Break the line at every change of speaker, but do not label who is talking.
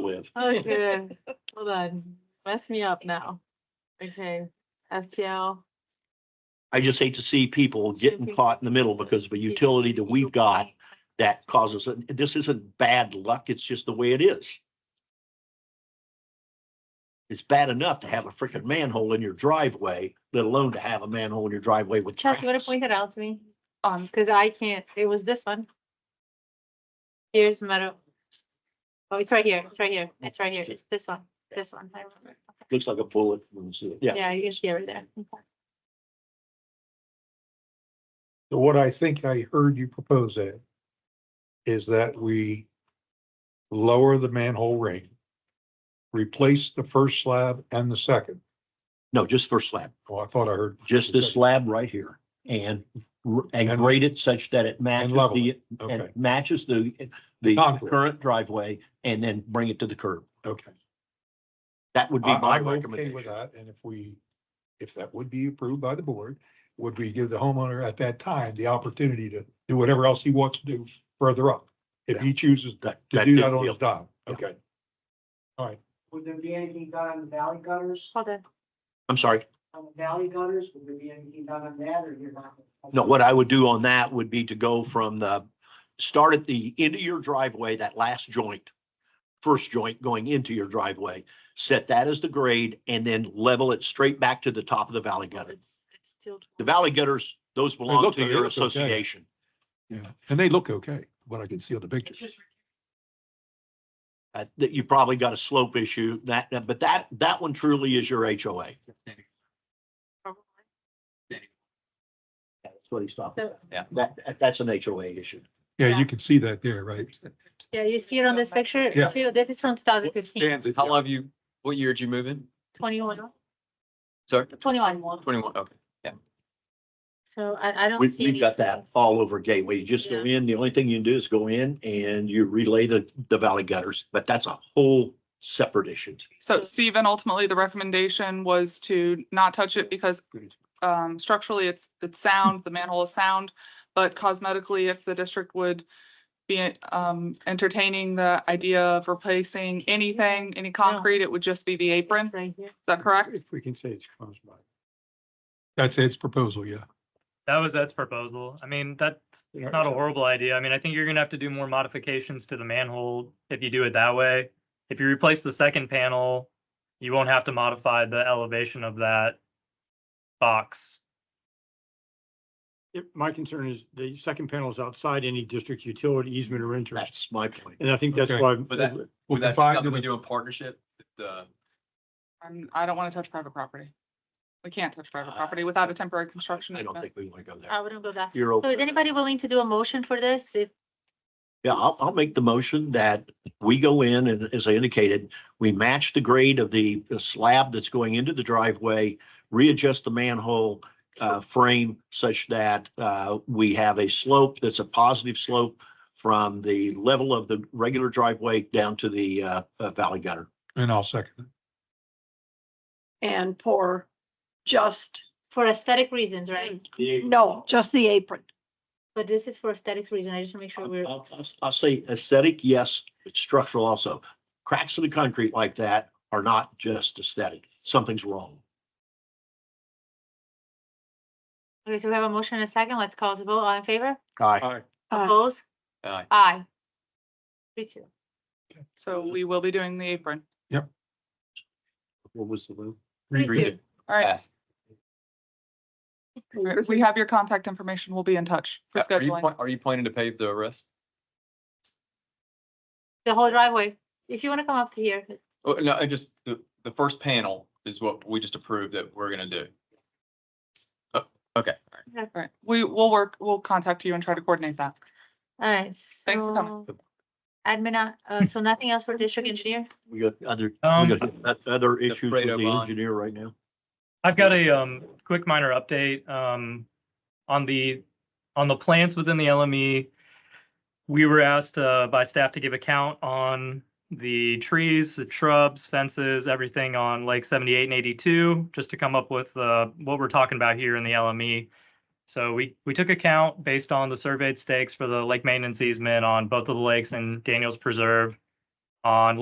live.
Okay, Oh, hold on, mess me up now. Okay, FPL.
I just hate to see people getting caught in the middle because of a utility that we've got that causes, it. this isn't bad luck, it's just the way it is. It's bad enough to have a freaking manhole in your driveway, let alone to have a manhole in your driveway with
Chelsea, what if
traps.
we hit out to me? Um, cause I can't, it was this one. Here's metal. Oh, it's right here, it's right here, it's right here, it's this one, this one. I remember.
Looks like a bullet. when you see it. Yeah,
Yeah, you can see it right there. Okay.
So What I think I heard you propose Ed, is that we lower the manhole ring, replace the first slab and the second.
no, just for slab,
Oh, I thought I heard.
just this slab right here and, r- and
And-
grade it such that it matches
level
the, and
Okay,
matches the, the
Contour.
current driveway and then bring it to the curb.
okay.
That would be
I-
my
I'm okay with
recommendation.
that. And if we, if that would be approved by the board, would we give the homeowner at that time the opportunity to do whatever else he wants to do further up? If he chooses
That-
to
that
do
big
that on his
deal.
dock,
Yeah.
okay.
Would there be anything done on the valley gutters?
Hold on,
I'm sorry.
On the valley gutters, would there be anything done on that or you're not?
No, what I would do on that would be to go from the, start at the end of your driveway, that last joint. First joint going into your driveway, set that as the grade and then level it straight back to the top of the valley gutter.
it's, it's still.
The valley gutters, those belong
look-
to
they
your
look okay.
association.
Yeah, and they look okay, when I can see on the
It's
pictures.
just
Uh, That you probably got a slope issue that, that- but that, that one truly is your HOA. That's what he stopped.
So-
Yeah.
That, that- that's an HOA issue.
Yeah,
Yeah.
you can see that there, right?
Yeah, you see it on this picture,
Yeah.
Phil, this is from 2015.
How long have you, what year did you move in?
21.
Sorry,
21.
twenty-one, okay.
So I, I don't
We,
see.
we've got that
anything.
all over Gateway. You just go in, the only thing you can do is go in and you relay the, the valley gutters, but that's a whole separate issue.
So Stephen, ultimately, the recommendation was to not touch it because um, structurally, it's, it's sound, the manhole is sound. But cosmetically, if the district would be um, entertaining the idea of replacing anything, any concrete, it would just be the apron.
It's
Is
right here.
that correct?
If we can say it's caused by. That's Ed's proposal, yeah.
That was Ed's proposal. I mean, that's not a horrible idea. I mean, I think you're gonna have to do more modifications to the manhole if you do it that way. If you replace the second panel, you won't have to modify the elevation of that box.
Yeah, My concern is the second panel is outside any district utility easement or interest,
That's my point.
and I think that's
Okay.
why.
But that-
We'll
Would that be
confine to
something we
the-
do in partnership? with The,
I'm- Um, I don't want to touch private property. We can't touch private property without a temporary construction.
I don't
easement.
think we want to go there.
I wouldn't go that.
You're
So
over.
is anybody willing to do a motion for this? If
Yeah, I'll, I'll make the motion that we go in and as I indicated, we match the grade of the slab that's going into the driveway, readjust the manhole uh, frame such that uh, we have a slope that's a positive slope from the level of the regular driveway down to the uh, uh, valley gutter.
And I'll second it.
and pour just,
For aesthetic reasons, right?
Mm.
no, just the apron.
But this is for aesthetics reason. I just want to make sure we're,
I'll, I'll- I'll say aesthetic, yes, it's structural also. Cracks in the concrete like that are not just aesthetic. Something's wrong.
okay, so we have a motion and a second. Let's call the vote. All in favor?
Guy,
Uh,
Opposed?
uh,
Aye. Three two.
So we will be doing the apron.
what was the move?
redo.
All right.
Pass.
We have your contact information. We'll be in touch for
Are you,
scheduling.
pla- are you planning to pave the rest?
The whole driveway. If you want to come up to here,
Oh, no, I just, the, the first panel is what we just approved that we're gonna do. Oh, Okay, all right.
All right, we will work, we'll contact you and try to coordinate that.
all right,
for
so.
coming.
Admin, uh, uh, so nothing else for district engineer?
We got other,
Um,
we got that other issues with
Fredo
the
bond.
engineer right now.
I've got a um quick minor update um on the on the plants within the LME. We were asked uh by staff to give a count on the trees, the shrubs, fences, everything on Lake seventy-eight and eighty-two, just to come up with uh what we're talking about here in the LME. So we we took a count based on the surveyed stakes for the lake maintenance easement on both of the lakes and Daniels Preserve on